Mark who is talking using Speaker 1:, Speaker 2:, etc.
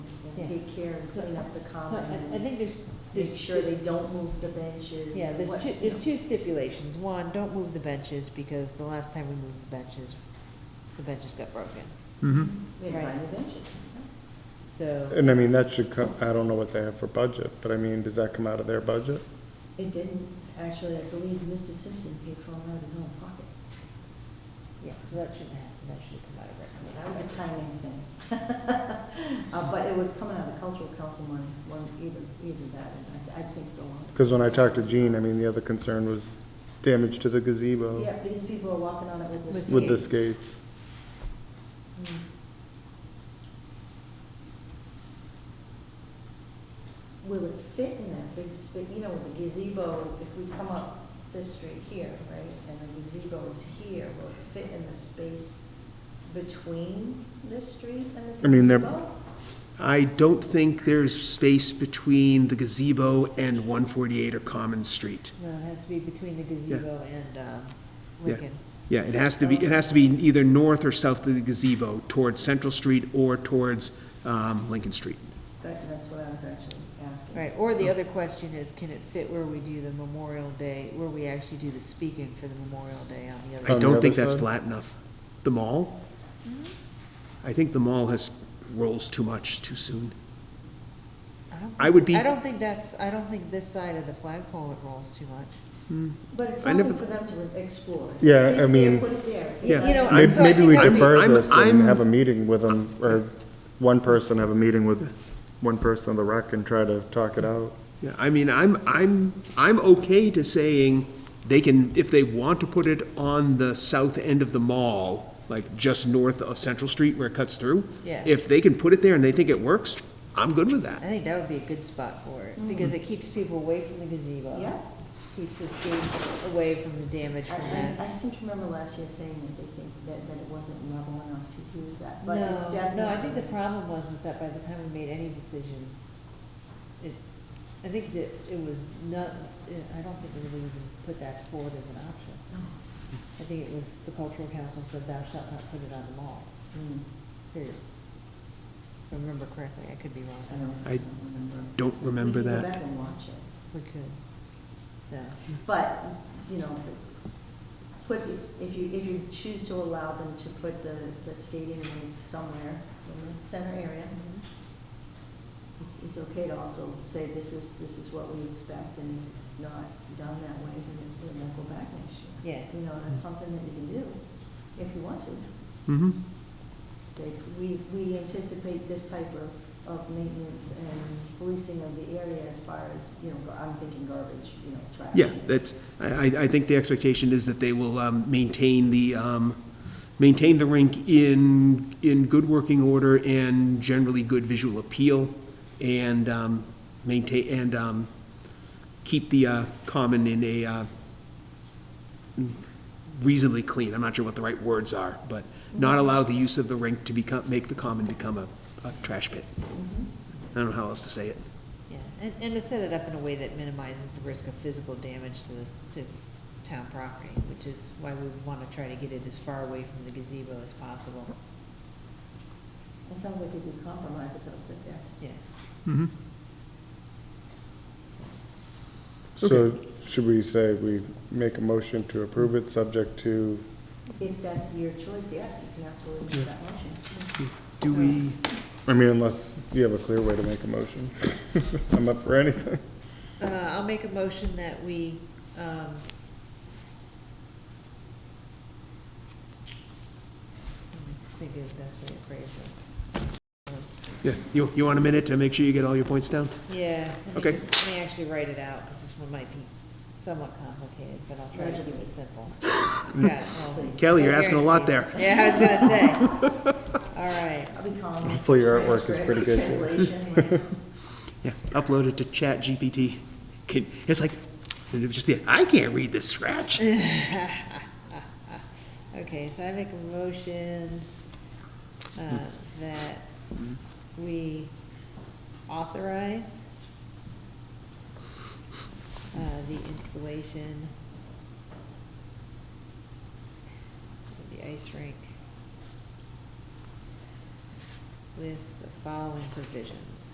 Speaker 1: Yeah.
Speaker 2: take care and clean up the
Speaker 1: So
Speaker 2: common
Speaker 1: I, I
Speaker 2: and
Speaker 1: think there's,
Speaker 2: make
Speaker 1: there's,
Speaker 2: sure they
Speaker 1: there's-
Speaker 2: don't move the benches.
Speaker 1: yeah,
Speaker 2: and
Speaker 1: there's
Speaker 2: what-
Speaker 1: two,
Speaker 2: you know.
Speaker 1: there's two stipulations. One, don't move the benches, because the last time we moved the benches, the benches got broken,
Speaker 3: Mm-hmm.
Speaker 4: Mhm.
Speaker 2: We had to buy new benches.
Speaker 1: so.
Speaker 4: And I mean, that should come, I don't know what they have for budget, but I mean, does that come out of their budget?
Speaker 2: It didn't, actually, I believe Mr. Simpson paid for them out of his own pocket.
Speaker 1: Yeah, so that shouldn't happen, that should come out of recreation.
Speaker 2: That was a timing thing. Uh, but it was coming out of cultural council money, one, either, either that, and I, I think the one.
Speaker 4: Because when I talked to Gene, I mean, the other concern was damage to the
Speaker 2: Yeah,
Speaker 4: gazebo
Speaker 2: because people are walking on it with
Speaker 1: With
Speaker 2: this.
Speaker 4: with the
Speaker 1: Skates.
Speaker 4: skates.
Speaker 2: Will it fit in that big space, you know, with the gazebo, if we come up this street here, right, and the gazebo is here, will it fit in the space between this street and the
Speaker 4: I mean, they're-
Speaker 2: gazebo?
Speaker 3: I don't think there's space between the gazebo and 148 or Common Street.
Speaker 1: No, it has to be between the gazebo and, um,
Speaker 3: Yeah.
Speaker 1: Lincoln.
Speaker 3: Yeah, it has to be, it has to be either north or south of the gazebo, towards Central Street or towards um, Lincoln Street.
Speaker 2: That, that's what I was actually asking.
Speaker 1: Right, or the other question is, can it fit where we do the Memorial Day, where we actually do the speaking for the Memorial Day on the other?
Speaker 3: I
Speaker 4: the
Speaker 1: side?
Speaker 3: don't think
Speaker 4: other
Speaker 3: that's
Speaker 4: side?
Speaker 3: flat enough. The mall? I think the mall has, rolls too much too soon.
Speaker 1: don't
Speaker 3: I would
Speaker 1: think-
Speaker 3: be-
Speaker 1: I don't think that's, I don't think this side of the flagpole it rolls too much.
Speaker 2: But it's
Speaker 3: I never
Speaker 2: something for them to explore. If
Speaker 4: Yeah,
Speaker 2: it's
Speaker 4: I
Speaker 2: there,
Speaker 4: mean-
Speaker 2: Put it there. If it
Speaker 3: Yeah.
Speaker 2: doesn't-
Speaker 1: You know,
Speaker 4: Maybe,
Speaker 1: so I
Speaker 4: maybe
Speaker 1: think
Speaker 4: we
Speaker 1: I-
Speaker 4: defer
Speaker 3: I'm-
Speaker 4: this and
Speaker 3: I'm-
Speaker 4: have a meeting with them, or one person have a meeting with one person on the rec and try to talk it out.
Speaker 3: Yeah, I mean, I'm, I'm, I'm okay to saying they can, if they want to put it on the south end of the mall, like just north of Central Street where it cuts through.
Speaker 1: Yeah.
Speaker 3: If they can put it there and they think it works, I'm good with
Speaker 1: I
Speaker 3: that.
Speaker 1: think that would be a good spot for it, because it keeps people away from the gazebo.
Speaker 2: Mm. Yeah.
Speaker 1: Keeps the skates away from the damage
Speaker 2: I-
Speaker 1: from
Speaker 2: I, I
Speaker 1: that.
Speaker 2: seem to remember last year saying that they think that, that it wasn't level enough to use that,
Speaker 1: No,
Speaker 2: but it's definitely.
Speaker 1: no, I think the problem was, was that by the time we made any decision, it, I think that it was not, I don't think we would even put that forward as an option. I think it was the cultural council said thou shalt not put it on the mall,
Speaker 2: Hmm,
Speaker 1: period. If I remember correctly, I could be
Speaker 2: I
Speaker 1: wrong,
Speaker 2: don't, I
Speaker 3: I
Speaker 2: don't remember.
Speaker 3: Don't remember
Speaker 2: We can go
Speaker 3: that.
Speaker 2: back and watch it,
Speaker 1: we could, so,
Speaker 2: but, you know, put, if you, if you choose to allow them to put the, the skating rink somewhere in the center area, it's, it's okay to also say this is, this is what we expect, and if it's not done that way, then it- then we'll go back next year.
Speaker 1: yeah.
Speaker 2: You know, that's something that you can do if you want to.
Speaker 3: Mm-hmm.
Speaker 2: Say, we, we anticipate this type of, of maintenance and policing of the area as far as, you know, gar- I'm thinking garbage, you know, trash.
Speaker 3: Yeah, that's, I, I- I think the expectation is that they will um, maintain the, um, maintain the rink in, in good working order and generally good visual appeal, and um, maintain, and um, keep the uh, common in a uh, reasonably clean, I'm not sure what the right words are, but not allow the use of the rink to become, make the common become a, a trash pit. I don't know how else to say it.
Speaker 1: Yeah, and, and to set it up in a way that minimizes the risk of physical damage to the, to town property, which is why we want to try to get it as far away from the gazebo as possible,
Speaker 2: It sounds like it'd be compromised if it'll fit there.
Speaker 1: yeah.
Speaker 3: Mm-hmm.
Speaker 4: So should we say we make a motion to approve it, subject to,
Speaker 2: If that's your choice, yes, you can absolutely make that motion.
Speaker 3: Do we?
Speaker 4: I mean, unless you have a clear way to make a motion. I'm up for anything.
Speaker 1: Uh, I'll make a motion that we, um, let me think of the best way to phrase
Speaker 3: Yeah, you, you want a minute to make sure you get all your points down?
Speaker 1: this. Yeah. let me
Speaker 3: Okay.
Speaker 1: just- Let me actually write it out, because this one might be somewhat complicated, but I'll try to keep it simple. Yeah, well,
Speaker 3: Kelly, you're asking a lot there.
Speaker 1: Yeah, I was gonna say. All right,
Speaker 2: I'll be calling.
Speaker 4: Hopefully your artwork is
Speaker 2: transcript,
Speaker 4: pretty good, too.
Speaker 2: Translation, like,
Speaker 3: Yeah, upload it to Chat GPT. Can, it's like, and it's just the, I can't read this scratch.
Speaker 1: okay, so I make a motion, uh, that we authorize uh, the installation of the ice rink with the following provisions.